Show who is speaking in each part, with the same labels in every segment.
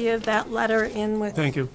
Speaker 1: Give that letter in with.
Speaker 2: Thank you.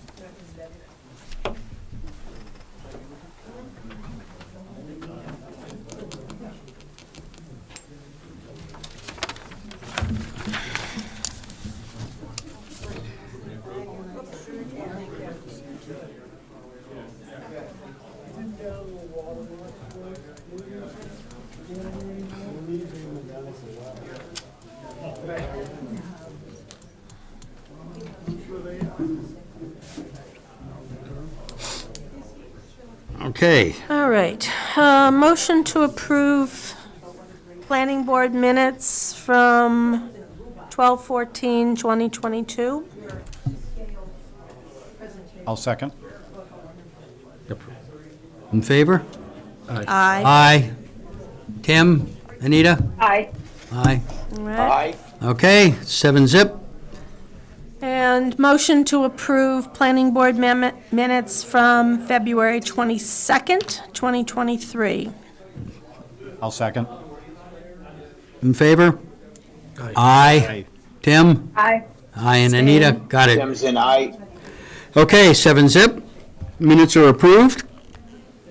Speaker 3: Okay,
Speaker 1: All right, uh, motion to approve planning board minutes from 12/14/2022.
Speaker 4: I'll second.
Speaker 3: in favor?
Speaker 1: Aye.
Speaker 3: Aye. Tim? Anita?
Speaker 5: Aye.
Speaker 3: Aye.
Speaker 1: All right.
Speaker 3: Okay, seven zip.
Speaker 1: And motion to approve planning board mem- minutes from February 22nd, 2023.
Speaker 4: I'll second.
Speaker 3: In favor? Aye. Tim?
Speaker 5: Aye.
Speaker 3: Aye, and Anita, got it.
Speaker 6: Sims and I.
Speaker 3: Okay, seven zip. Minutes are approved.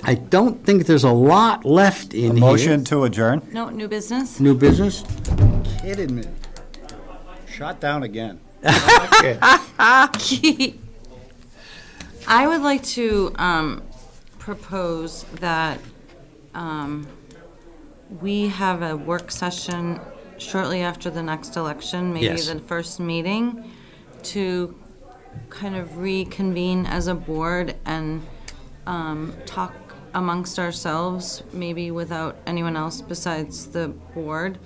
Speaker 3: I don't think there's a lot left in here.
Speaker 4: Motion to adjourn?
Speaker 7: No, new business?
Speaker 3: New business?
Speaker 4: Kidding me. Shot down again.
Speaker 7: I would like to um, propose that um, we have a work session shortly after the next election, maybe
Speaker 3: Yes.
Speaker 7: the first meeting, to kind of reconvene as a board and um, talk amongst ourselves, maybe without anyone else besides the board,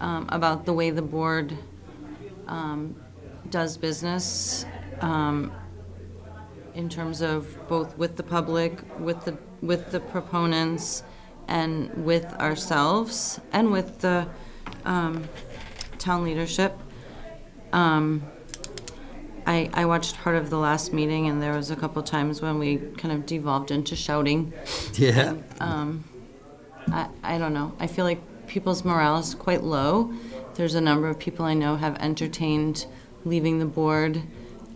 Speaker 7: um, about the way the board um, does business, um, in terms of both with the public, with the, with the proponents, and with ourselves, and with the um, town leadership. Um, I, I watched part of the last meeting, and there was a couple times when we kind of devolved into shouting.
Speaker 3: Yeah.
Speaker 7: I, I don't know. I feel like people's morale is quite low. There's a number of people I know have entertained leaving the board,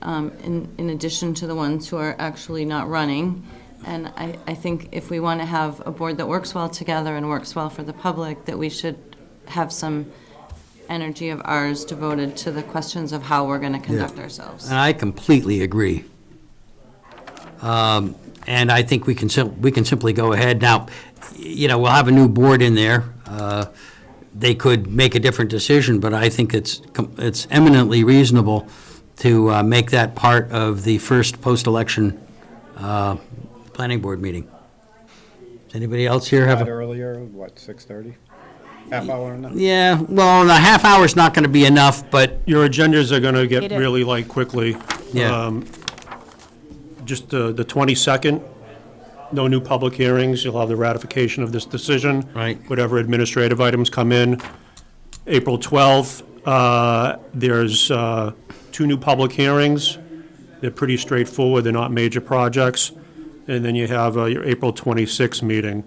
Speaker 7: um, in, in addition to the ones who are actually not running. And I, I think if we want to have a board that works well together and works well for the public, that we should have some energy of ours devoted to the questions of how we're going to conduct ourselves.
Speaker 3: And I completely agree. Um, And I think we can, sim- we can simply go ahead. Now, you know, we'll have a new board in there. Uh, They could make a different decision, but I think it's, com- it's eminently reasonable to uh, make that part of the first post-election uh, planning board meeting. Does anybody else here have a?
Speaker 4: Got earlier, what, 6:30? Half hour and a-
Speaker 3: Yeah, well, a half hour's not going to be enough, but
Speaker 2: Your agendas are going to get
Speaker 1: It is.
Speaker 2: really light quickly.
Speaker 3: Yeah.
Speaker 2: Um, Just uh, the 22nd, no new public hearings, you'll have the ratification of this decision.
Speaker 3: Right.
Speaker 2: Whatever administrative items come in. April 12th, uh, there's uh, two new public hearings. They're pretty straightforward, they're not major projects. And then you have uh, your April 26th meeting,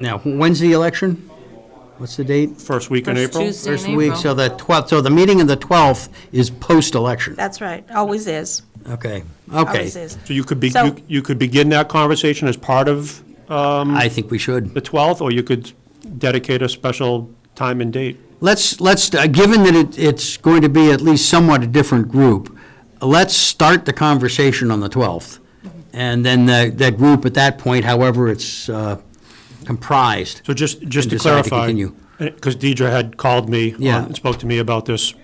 Speaker 3: now, when's the election? What's the date?
Speaker 2: first week in
Speaker 7: First
Speaker 2: April.
Speaker 7: Tuesday in
Speaker 3: First week,
Speaker 7: April.
Speaker 3: so the 12th, so the meeting of the 12th is post-election.
Speaker 1: That's right, always is,
Speaker 3: Okay,
Speaker 1: always
Speaker 3: okay.
Speaker 1: is.
Speaker 2: So you could be,
Speaker 1: So-
Speaker 2: you you could begin that conversation as part of
Speaker 3: I think we should.
Speaker 2: the 12th, or you could dedicate a special time and date.
Speaker 3: Let's, let's, uh, given that it- it's going to be at least somewhat a different group, let's start the conversation on the 12th. And then the- that group at that point, however it's uh, comprised,
Speaker 2: So just, just
Speaker 3: And
Speaker 2: to
Speaker 3: decide to
Speaker 2: clarify,
Speaker 3: continue.
Speaker 2: because Deidre had called me on-
Speaker 3: Yeah.
Speaker 2: and spoke to me about this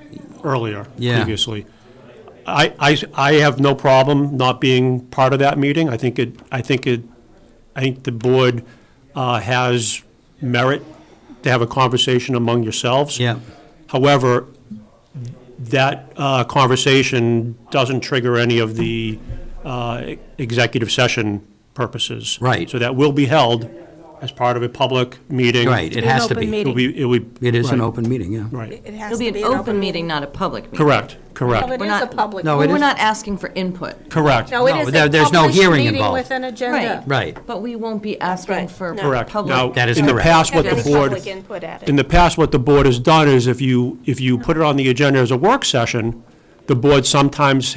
Speaker 2: earlier,
Speaker 3: Yeah.
Speaker 2: previously. I, I, I have no problem not being part of that meeting. I think it, I think it, I think the board uh, has merit to have a conversation among yourselves.
Speaker 3: Yeah.
Speaker 2: However, that uh, conversation doesn't trigger any of the uh, executive session purposes.
Speaker 3: Right.
Speaker 2: So that will be held as part of a public meeting.
Speaker 3: right, it
Speaker 1: An
Speaker 3: has to
Speaker 1: open
Speaker 3: be.
Speaker 2: It will
Speaker 1: meeting.
Speaker 2: be, it would.
Speaker 3: It is an
Speaker 2: right,
Speaker 3: open meeting, yeah.
Speaker 2: Right,
Speaker 1: It has
Speaker 7: It'll
Speaker 1: to
Speaker 7: be an open meeting, not a public meeting.
Speaker 2: correct,
Speaker 1: No, it
Speaker 2: correct,
Speaker 7: We're
Speaker 1: is a
Speaker 7: not-
Speaker 1: public.
Speaker 3: No,
Speaker 7: But
Speaker 3: it
Speaker 7: we're
Speaker 3: is-
Speaker 7: not asking for input.
Speaker 2: correct.
Speaker 1: No, it
Speaker 3: No,
Speaker 1: is
Speaker 3: there-
Speaker 1: a
Speaker 3: there's no
Speaker 1: published
Speaker 3: hearing
Speaker 1: meeting
Speaker 3: involved.
Speaker 1: with an agenda.
Speaker 3: Right,
Speaker 7: But we won't be asking
Speaker 1: Right.
Speaker 7: for
Speaker 1: No.
Speaker 2: Correct. Now,
Speaker 7: public.
Speaker 3: That is
Speaker 2: in the
Speaker 3: correct.
Speaker 2: past, what
Speaker 1: Have
Speaker 2: the
Speaker 1: any
Speaker 2: board,
Speaker 1: public input at it.
Speaker 2: in the past, what the board has done is if you, if you put it on the agenda as a work session, the board sometimes